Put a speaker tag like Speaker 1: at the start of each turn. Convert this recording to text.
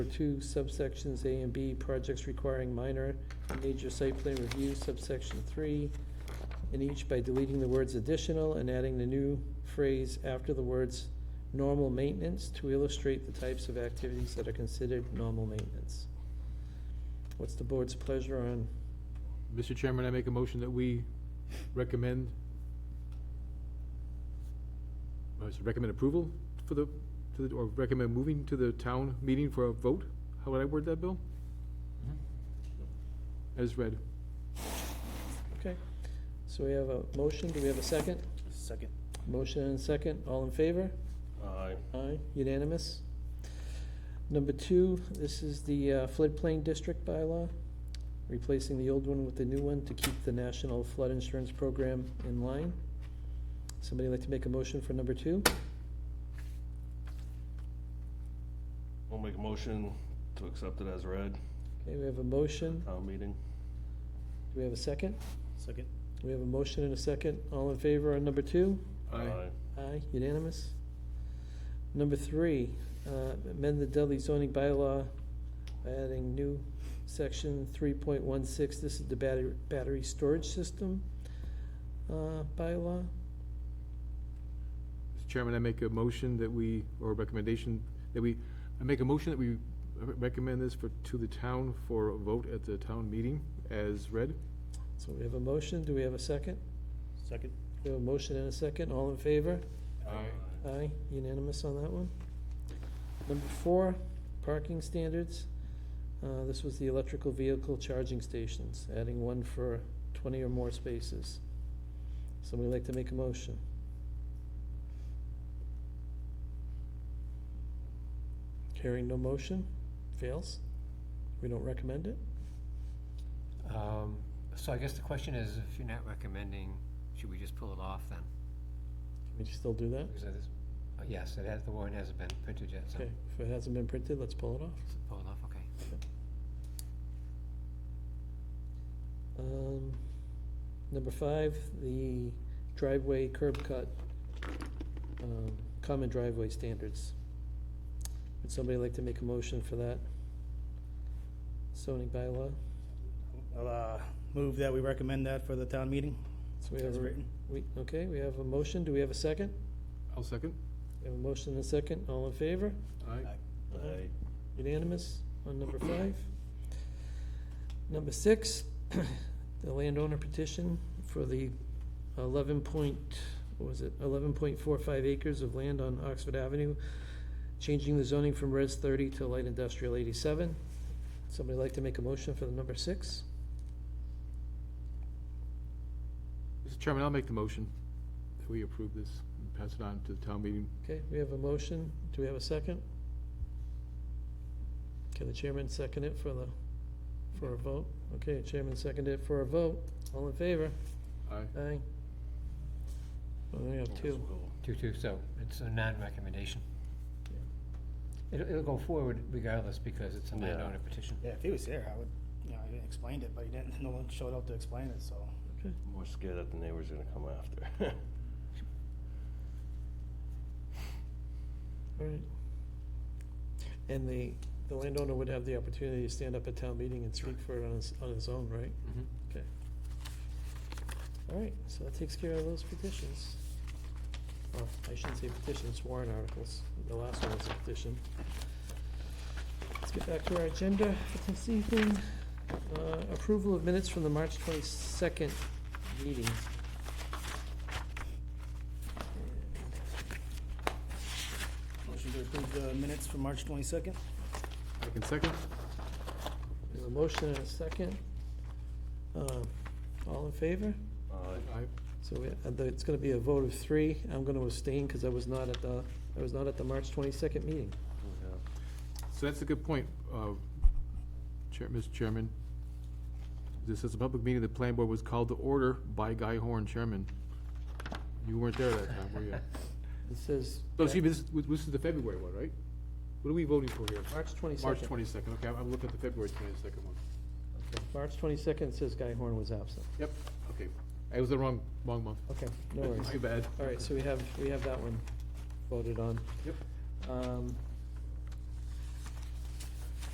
Speaker 1: Two subsections A and B, projects requiring minor and major site plan review, subsection three, in each by deleting the words additional and adding the new phrase after the words normal maintenance to illustrate the types of activities that are considered normal maintenance. What's the board's pleasure on
Speaker 2: Mr. Chairman, I make a motion that we recommend, uh, so recommend approval for the, to the, or recommend moving to the town meeting for a vote? How would I word that, Bill? As read.
Speaker 1: Okay, so we have a motion, do we have a second?
Speaker 3: Second.
Speaker 1: Motion and a second, all in favor?
Speaker 3: Aye.
Speaker 1: Aye, unanimous. Number two, this is the uh, floodplain district bylaw, replacing the old one with the new one to keep the National Flood Insurance Program in line. Somebody like to make a motion for number two?
Speaker 3: I'll make a motion to accept it as read,
Speaker 1: Okay, we have a motion,
Speaker 3: town meeting.
Speaker 1: do we have a second?
Speaker 4: Second.
Speaker 1: We have a motion and a second, all in favor on number two?
Speaker 2: Aye.
Speaker 1: Aye, unanimous. Number three, uh, amend the Dudley zoning bylaw by adding new section three point one six, this is the battery, battery storage system, uh, bylaw.
Speaker 2: Mr. Chairman, I make a motion that we, or recommendation, that we, I make a motion that we recommend this for, to the town for a vote at the town meeting as read.
Speaker 1: So we have a motion, do we have a second?
Speaker 4: Second.
Speaker 1: We have a motion and a second, all in favor? Aye, unanimous on that one. Number four, parking standards. Uh, This was the electrical vehicle charging stations, adding one for 20 or more spaces. Somebody like to make a motion? Hearing no motion, fails. We don't recommend it.
Speaker 5: Um, So I guess the question is, if you're not recommending, should we just pull it off then?
Speaker 1: Can we still do that?
Speaker 5: Because it is, uh, yes, it has, the warrant hasn't been printed yet, so
Speaker 1: Okay, if it hasn't been printed, let's pull it off.
Speaker 5: so pull it off, okay.
Speaker 1: Um, Number five, the driveway curb cut, um, common driveway standards. Would somebody like to make a motion for that zoning bylaw?
Speaker 4: I'll, uh, move that we recommend that for the town meeting,
Speaker 1: So we have,
Speaker 4: as
Speaker 1: a-
Speaker 4: written.
Speaker 1: we, okay, we have a motion, do we have a second?
Speaker 2: I'll second.
Speaker 1: We have a motion and a second, all in favor?
Speaker 2: Aye.
Speaker 3: Aye.
Speaker 1: Unanimous on number five. Number six, the landowner petition for the eleven point, what was it, eleven point four five acres of land on Oxford Avenue, changing the zoning from res thirty to light industrial eighty-seven. Somebody like to make a motion for the number six?
Speaker 2: Mr. Chairman, I'll make the motion that we approve this and pass it on to the town meeting.
Speaker 1: Okay, we have a motion, do we have a second? Can the chairman second it for the, for a vote? Okay, chairman seconded it for a vote, all in favor?
Speaker 2: Aye.
Speaker 1: Aye. Well, we have two.
Speaker 5: Two-two, so it's a non-recommendation. It'll, it'll go forward regardless because it's a
Speaker 3: Yeah.
Speaker 5: landowner petition.
Speaker 4: Yeah, if he was here, I would, you know, he explained it, but he didn't, no one showed up to explain it, so.
Speaker 1: Okay,
Speaker 3: I'm more scared that the neighbor's gonna come after.
Speaker 1: all right. And the, the landowner would have the opportunity to stand up at town meeting and speak for it on his, on his own, right?
Speaker 5: Mhm.
Speaker 1: Okay. All right, so that takes care of those petitions. Well, I shouldn't say petitions, warrant articles. The last one was a petition. Let's get back to our agenda for this evening. Uh, Approval of minutes from the March twenty-second meeting.
Speaker 4: Motion to approve the minutes for March twenty-second?
Speaker 2: I can second.
Speaker 1: There's a motion and a second. Um, All in favor?
Speaker 3: Aye.
Speaker 2: Aye.
Speaker 1: So we- uh, the- it's going to be a vote of three. I'm going to abstain because I was not at the, I was not at the March 22nd meeting.
Speaker 3: Yeah.
Speaker 2: So that's a good point, uh, Chair, Mr. Chairman. This says a public meeting, the planning board was called to order by Guy Horn, Chairman. You weren't there that time, were you?
Speaker 1: It says.
Speaker 2: No, excuse me, this, this is the February one, right? What are we voting for here?
Speaker 1: March 22nd.
Speaker 2: March twenty-second, okay, I'm- I'm looking at the February twenty-second one.
Speaker 1: Okay, March 22nd says Guy Horn was absent.
Speaker 2: Yep, okay, it was the wrong, wrong month.
Speaker 1: Okay, no worries.
Speaker 2: Too bad.
Speaker 1: All right, so we have, we have that one voted on.
Speaker 2: Yep.
Speaker 1: Um,